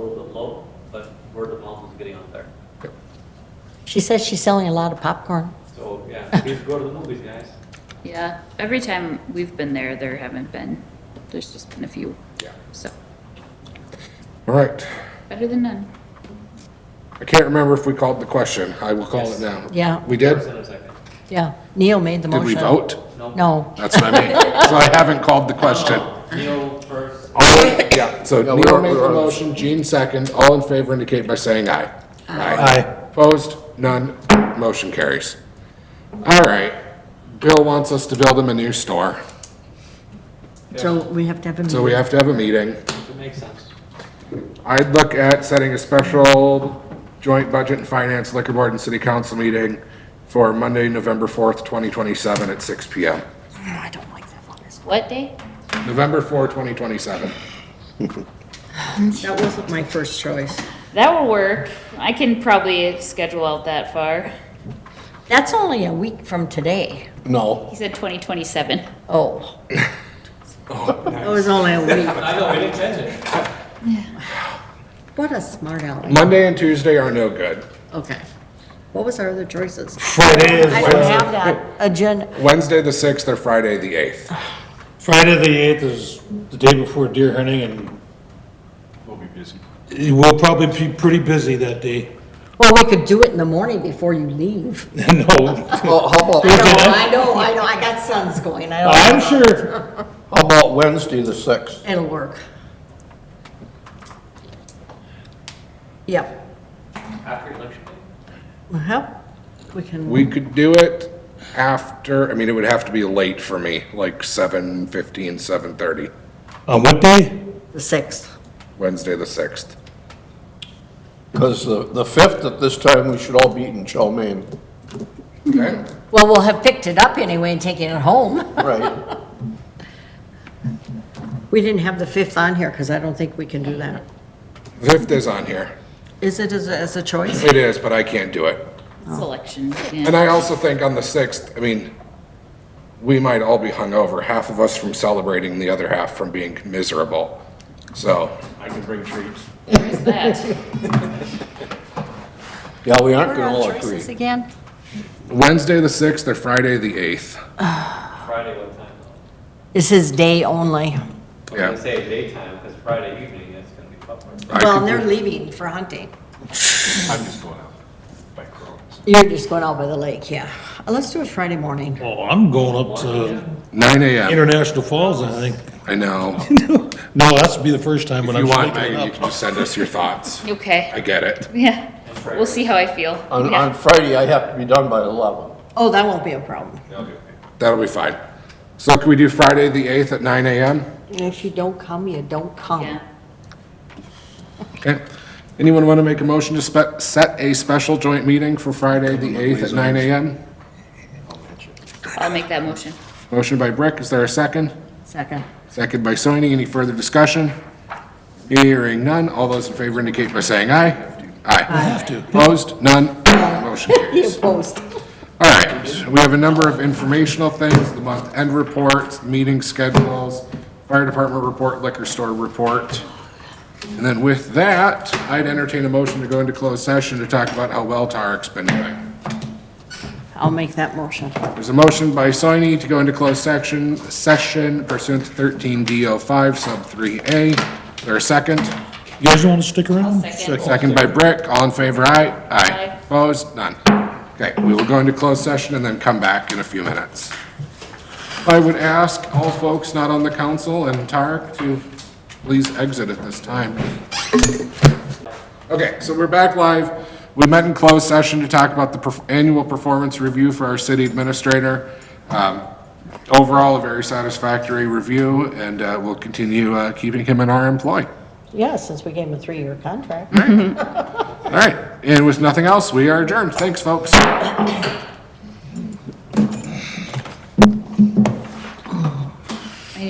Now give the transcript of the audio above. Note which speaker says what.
Speaker 1: vote, but word of mouth is getting out there.
Speaker 2: She says she's selling a lot of popcorn.
Speaker 1: So, yeah, please go to the movies, guys.
Speaker 3: Yeah, every time we've been there, there haven't been, there's just been a few. Yeah. So,
Speaker 4: All right.
Speaker 3: better than none.
Speaker 4: I can't remember if we called the question. I will call it now.
Speaker 2: Yeah,
Speaker 4: We did?
Speaker 1: First and a second.
Speaker 2: yeah. Neil made the
Speaker 4: Did
Speaker 2: motion.
Speaker 4: we vote?
Speaker 1: No.
Speaker 2: No.
Speaker 4: That's what I mean. So I haven't called the question.
Speaker 1: Neil first.
Speaker 4: Yeah, so
Speaker 5: No, we
Speaker 4: Neil
Speaker 5: were-
Speaker 4: made
Speaker 5: we
Speaker 4: the
Speaker 5: were-
Speaker 4: motion, Gene second. All in favor indicate by saying aye.
Speaker 5: Aye.
Speaker 4: Opposed? None. Motion carries. All right. Bill wants us to build him a new store,
Speaker 2: So we have to have a
Speaker 4: so we
Speaker 2: meeting.
Speaker 4: have to have a meeting.
Speaker 1: It makes sense.
Speaker 4: I'd look at setting a special joint budget and finance liquor board and city council meeting for Monday, November 4th, 2027 at 6 PM.
Speaker 2: I don't like that one.
Speaker 3: What day?
Speaker 4: November 4th, 2027.
Speaker 2: That wasn't my first choice.
Speaker 3: That will work. I can probably schedule out that far.
Speaker 2: That's only a week from today.
Speaker 5: No.
Speaker 3: He said 2027.
Speaker 2: Oh. It was only a week.
Speaker 1: I know, we didn't change it.
Speaker 2: What a smart aleck.
Speaker 4: Monday and Tuesday are no good.
Speaker 2: Okay. What was our other choices?
Speaker 5: Friday
Speaker 2: I
Speaker 5: is,
Speaker 2: don't have that agenda.
Speaker 4: Wednesday, the 6th, or Friday, the 8th.
Speaker 5: Friday the eighth is the day before deer hunting and. We'll be busy. We'll probably be pretty busy that day.
Speaker 2: Well, we could do it in the morning before you leave.
Speaker 5: No,
Speaker 6: Well, how about,
Speaker 2: I know, I know, I know. I got sons going. I don't.
Speaker 5: I'm sure,
Speaker 6: how about Wednesday, the sixth?
Speaker 2: It'll work. Yep.
Speaker 1: After election day.
Speaker 2: Well, we can.
Speaker 4: We could do it after, I mean, it would have to be late for me, like 7:15, 7:30,
Speaker 5: on what day?
Speaker 2: The sixth.
Speaker 4: Wednesday, the 6th.
Speaker 6: Because the, the fifth at this time, we should all be eating chow mein, Mm-hmm.
Speaker 4: Okay?
Speaker 2: Well, we'll have picked it up anyway and taken it home.
Speaker 6: right?
Speaker 2: We didn't have the fifth on here because I don't think we can do that.
Speaker 4: 5th is on here.
Speaker 2: Is it as, a- as a choice?
Speaker 4: It is, but I can't do it.
Speaker 3: Selection. yeah.
Speaker 4: And I also think on the 6th, I mean, we might all be hungover, half of us from celebrating, the other half from being miserable. So,
Speaker 1: I can bring treats.
Speaker 3: There's that.
Speaker 6: Yeah, we aren't
Speaker 2: What
Speaker 6: gonna
Speaker 2: are
Speaker 6: all
Speaker 2: our
Speaker 6: agree.
Speaker 2: choices again?
Speaker 4: Wednesday, the 6th, or Friday, the 8th.
Speaker 1: Friday, what time?
Speaker 2: This is day only.
Speaker 1: I was gonna
Speaker 4: Yeah.
Speaker 1: say daytime, because Friday evening, it's gonna be tougher.
Speaker 4: I
Speaker 2: Well,
Speaker 4: could
Speaker 2: and they're
Speaker 4: do-
Speaker 2: leaving for hunting.
Speaker 7: I'm just going out by Crohn's.
Speaker 2: You're just going out by the lake, yeah. Uh, Let's do it Friday morning.
Speaker 5: Well, I'm going up to
Speaker 4: 9 AM,
Speaker 5: International Falls, I think.
Speaker 4: I know.
Speaker 5: No, that's be the first time
Speaker 4: If
Speaker 5: when I'm.
Speaker 4: you want,
Speaker 5: making
Speaker 4: Megan, you
Speaker 5: it
Speaker 4: can
Speaker 5: up.
Speaker 4: just send us your thoughts. I
Speaker 3: Okay.
Speaker 4: get it.
Speaker 3: Yeah. We'll see how I feel.
Speaker 6: On,
Speaker 3: Yeah.
Speaker 6: on Friday, I have to be done by eleven.
Speaker 2: Oh, that won't be a problem.
Speaker 4: That'll be fine. So can we do Friday, the 8th at 9 AM?
Speaker 2: If you don't come, you don't come.
Speaker 3: Yeah.
Speaker 4: Okay. Anyone want to make a motion to spe- set a special joint meeting for Friday, the 8th at 9 AM?
Speaker 3: I'll make that motion.
Speaker 4: Motion by Brick, is there a second?
Speaker 2: Second.
Speaker 4: Second by Soini, any further discussion? Hearing none, all those in favor indicate by saying aye. Aye. Have to. Opposed, none, motion
Speaker 2: You
Speaker 4: carries.
Speaker 2: opposed.
Speaker 4: All right, we have a number of informational things, the month-end reports, meeting schedules, fire department report, liquor store report. And then with that, I'd entertain a motion to go into closed session to talk about how well Tarek's been doing.
Speaker 2: I'll make that motion.
Speaker 4: There's a motion by Soini to go into closed section, session pursuant to thirteen D O five sub three A. Is there a second?
Speaker 5: You guys want to stick around?
Speaker 3: Second.
Speaker 4: Second by Brick, all in favor, aye?
Speaker 3: Aye.
Speaker 4: Opposed? None. Okay, we will go into closed session and then come back in a few minutes. I would ask all folks not on the council and Tarek to please exit at this time. Okay, so we're back live. We met in closed session to talk about the perf- annual performance review for our city administrator. Um, Overall, a very satisfactory review, and uh, we'll continue uh, keeping him in our employ.
Speaker 2: Yeah, since we gave him a three-year contract.
Speaker 4: All right, and with nothing else, we are adjourned. Thanks, folks.